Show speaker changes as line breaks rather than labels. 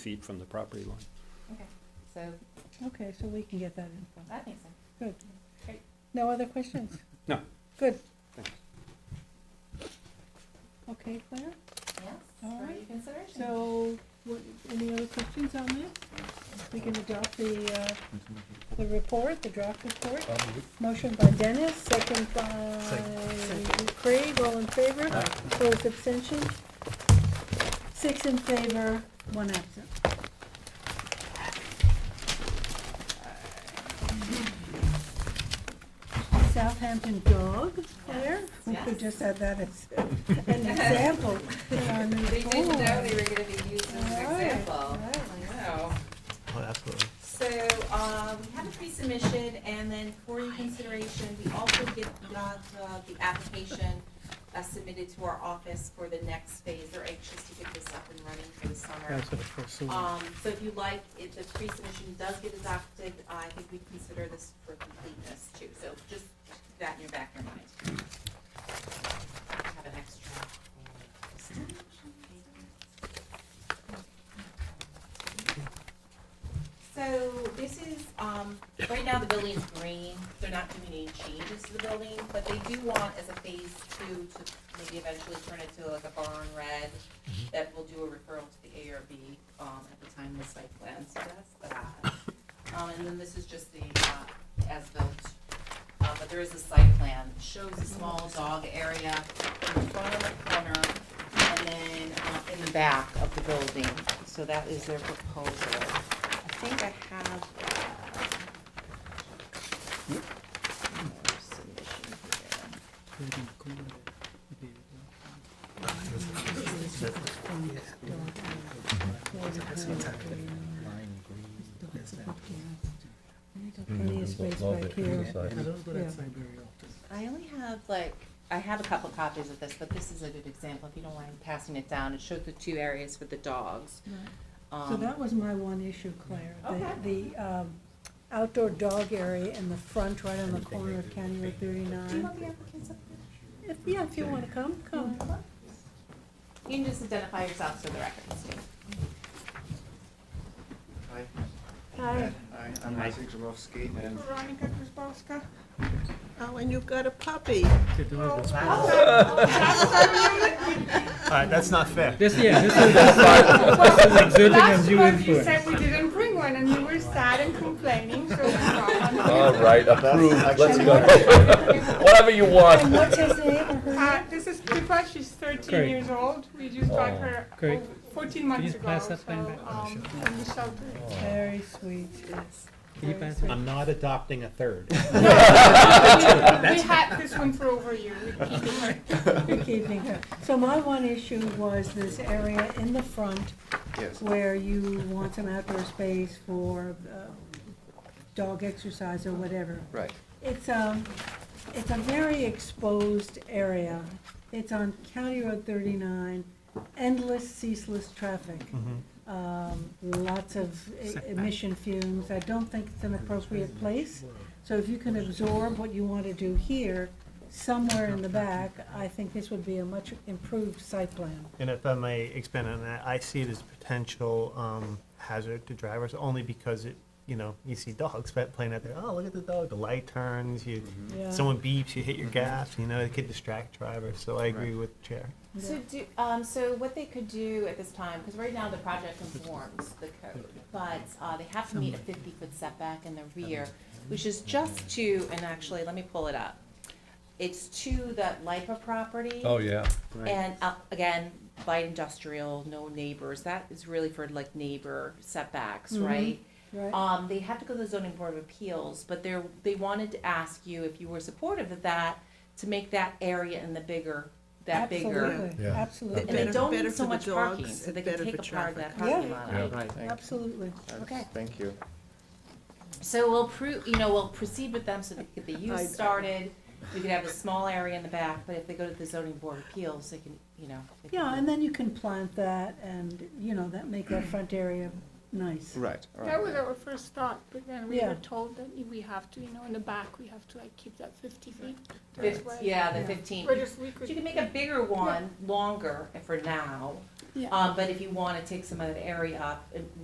feet from the property line.
Okay, so
Okay, so we can get that info.
that makes sense.
Good.
Great.
No other questions?
No.
Good.
Thanks.
Okay, Claire?
Yes,
All
for
right.
your consideration.
So, what, any other questions on this? We can adopt the, uh, the report, the draft report. Motion by Dennis, second by Craig, all in favor? Opposed, abstention? Six in favor, one absent. Southampton dog, Claire? We
Yes.
could just have that as an example in our new
They didn't know
form.
they were gonna be used as an
All right,
example.
all right.
I know.
Oh, absolutely.
So, um, we had a pre-submission, and then for your consideration, we also get, got, uh, the application uh, submitted to our office for the next phase. They're anxious to get this up and running for the summer.
Uh,
Um, so if you like, if the pre-submission does get adopted, I think we consider this for completeness too, so just keep that in your back of your mind. Have an extra. So this is, um, right now the building is green, they're not doing any changes to the building, but they do want as a phase two to maybe eventually turn it to like a barn red, that will do a referral to the ARB um, at the time the site plan, so that's that. Um, And then this is just the uh, as-built, Uh, but there is a site plan, shows a small dog area in front of the corner and then uh, in the back of the building. So that is their proposal. I think I have uh, more submission here.
Plenty of space back here.
I don't go
Yeah.
outside very often.
I only have like, I have a couple copies of this, but this is a good example, if you don't mind passing it down, it showed the two areas with the dogs.
So
Um,
that was my one issue, Claire, the,
Okay.
the um, outdoor dog area in the front, right on the corner of County Road
Do you
thirty-nine.
want the applicants up here?
If, yeah, if you wanna come, come.
You can just identify yourself for the record, Steve.
Hi,
Hi.
Hi, I'm Isaac Zarowski, and
Veronica Krasbowska. Oh, and you've got a puppy. Oh,
All right, that's not fair.
This, yeah, this is, this is exerting undue
Last month you
influence.
said we didn't bring one and you were sad and complaining, so we brought one.
All right, approved, let's go. Whatever you
And
want.
what's his name or her
Uh, this is Pippa, she's thirteen
Great.
years old. We just got her
Great.
oh, fourteen
you
months ago,
pass
so,
that pen back? Oh.
um, in the shelter.
name? Very sweet.
Can you pass it?
I'm not adopting a third.
We had this one for over a year, we're keeping her.
Good evening. So my one issue was this area in the front
yes,
where you want some outdoor space for uh, dog exercise or whatever.
right,
It's um it's a very exposed area. It's on County Road thirty-nine, endless ceaseless traffic. Um, lots of e- emission fumes. I don't think it's an appropriate place. So if you can absorb what you want to do here, somewhere in the back, I think this would be a much improved site plan.
And if I may expand on that, I see it as potential um, hazard to drivers only because it, you know, you see dogs pet playing out there. Oh, look at the dog. The light turns. You,
Yeah.
someone beeps. You hit your gas. You know, it could distract drivers. So I agree with chair.
So do, um, so what they could do at this time, because right now the project conforms the code, but, uh, they have to meet a fifty-foot setback in the rear, which is just to, and actually, let me pull it up. It's to that LIPA
Oh,
property.
yeah.
And uh, again, light industrial, no neighbors, that is really for like neighbor setbacks,
Mhm.
right?
Right?
Um, they have to go to the zoning board of appeals, but they're, they wanted to ask you if you were supportive of that, to make that area in the bigger, that bigger.
Absolutely,
Yeah.
absolutely.
And they
Better-
don't
better
need so
for the
much parking,
dogs
so they
and
can
better
take
for
apart that
traffic.
parking
Yeah.
lot.
Yeah.
out.
right, thanks.
Absolutely.
That's-
Okay.
Thank you.
So we'll prove, you know, we'll proceed with them so they can get the use started, we could have a small area in the back, but if they go to the zoning board of appeals, they can, you know. they can
Yeah,
do-
and then you can plant that and, you know, that make that front area nice.
Right, all
That was
right.
our first thought, but then we
Yeah.
were told that we have to, you know, in the back, we have to like keep that fifty feet.
Fif-
That's why-
Yeah, the
Yeah.
fifteen.
We're just, we
You
could,
can make a bigger one, longer for now,
Yeah.
Um, but if you wanna take some of that area up, it